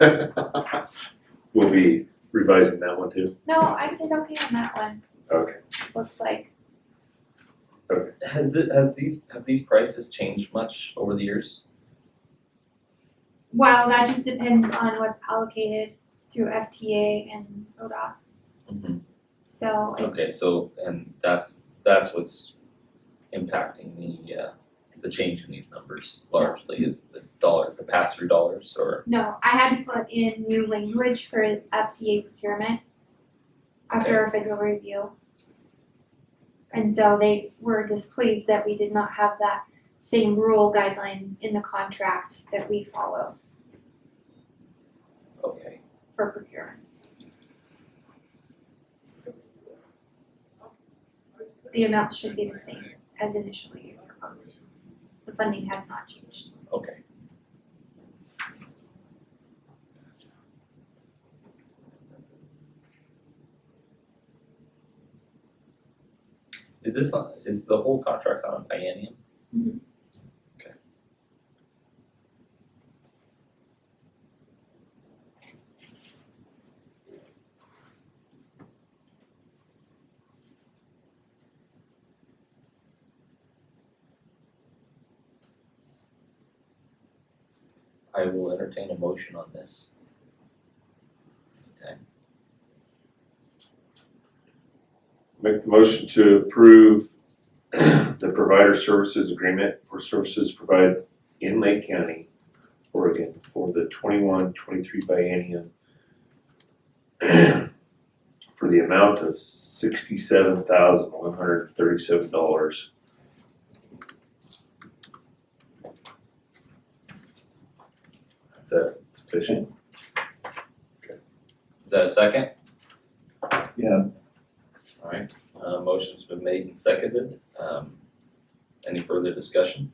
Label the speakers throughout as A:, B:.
A: We'll be revising that one too.
B: No, I did okay on that one,
A: Okay.
B: looks like,
C: Has it, has these, have these prices changed much over the years?
B: well, that just depends on what's allocated through FTA and ODOT, so I
C: Okay, so, and that's, that's what's impacting the, uh, the change in these numbers largely is the dollar, the pass-through dollars or?
B: No, I had to put in new language for FDA procurement after a federal review. And so they were displeased that we did not have that same rule guideline in the contract that we follow
C: Okay,
B: for procurements. The amounts should be the same as initially proposed. The funding has not changed.
C: okay. Is this on, is the whole contract on a biennium? I will entertain a motion on this. Anytime.
A: Make the motion to approve the provider services agreement for services provided in Lake County, Oregon, for the 21-23 biennium for the amount of sixty-seven thousand one hundred thirty-seven dollars. Is that sufficient?
C: Is that a second?
A: Yeah.
C: Alright, uh, motion's been made and seconded, um, any further discussion?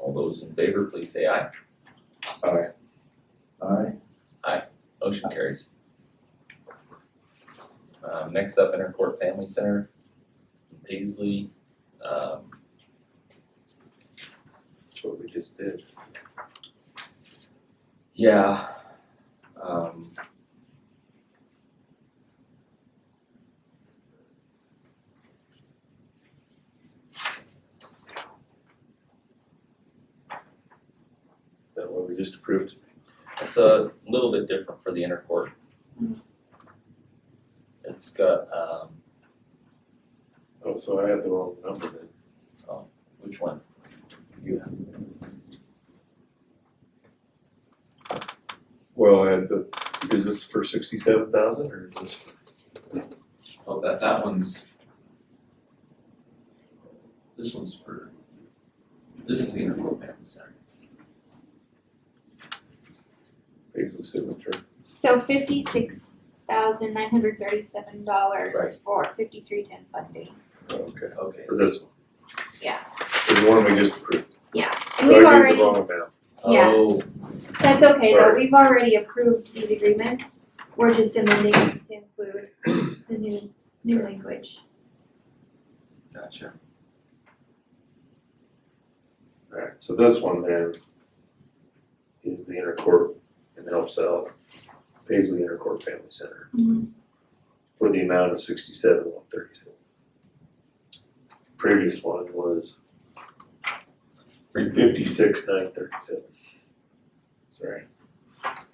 C: All those in favor, please say aye,
A: Aye.
D: Aye.
C: motion carries. Um, next up, Intercourt Family Center, Paisley, um,
A: That's what we just did.
C: Yeah. Um.
A: Is that what we just approved?
C: It's a little bit different for the inner court.
B: Mm.
C: It's got, um,
A: Oh, so I had the wrong number then.
C: which one?
A: Well, I had the, is this for sixty-seven thousand or is this?
C: Oh, that, that one's.
D: This one's for, this is the Interpol Family Center.
A: Basil signature.
B: So fifty-six thousand nine hundred thirty-seven dollars for fifty-three ten funding.
A: Oh, Okay.
C: Okay.
A: For this one.
B: Yeah.
A: For the one we just approved.
B: And
A: So I
B: we've
A: gave
B: already,
A: the wrong amount.
B: Yeah.
C: Oh,
B: that's okay though,
A: Sorry.
B: we've already approved these agreements, we're just amending them to include the new, new language.
C: gotcha.
A: Alright, so this one then is the intercorp and helps out Paisley Intercorp Family Center for the amount of sixty-seven one thirty-seven. Previous one was
C: Three
A: fifty-six nine thirty-seven. Sorry. I'll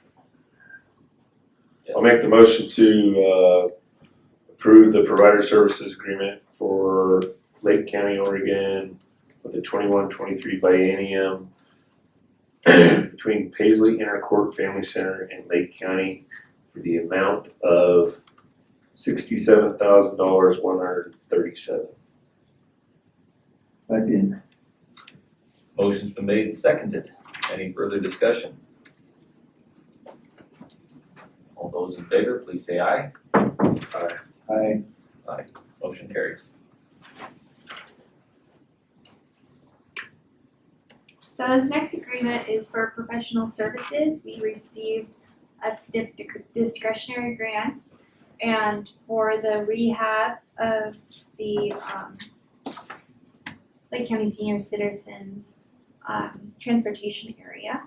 C: Yes,
A: make the motion to uh approve the provider services agreement for Lake County, Oregon with the twenty-one, twenty-three biennium between Paisley Intercorp Family Center and Lake County for the amount of sixty-seven thousand dollars, one hundred and thirty-seven.
D: Second.
C: motion's been made and seconded, any further discussion? All those in favor, please say aye.
D: Aye.
C: Motion carries.
B: So this next agreement is for professional services, we received a STIP dic- discretionary grant. And for the rehab of the um Lake County Senior Citizens um transportation area.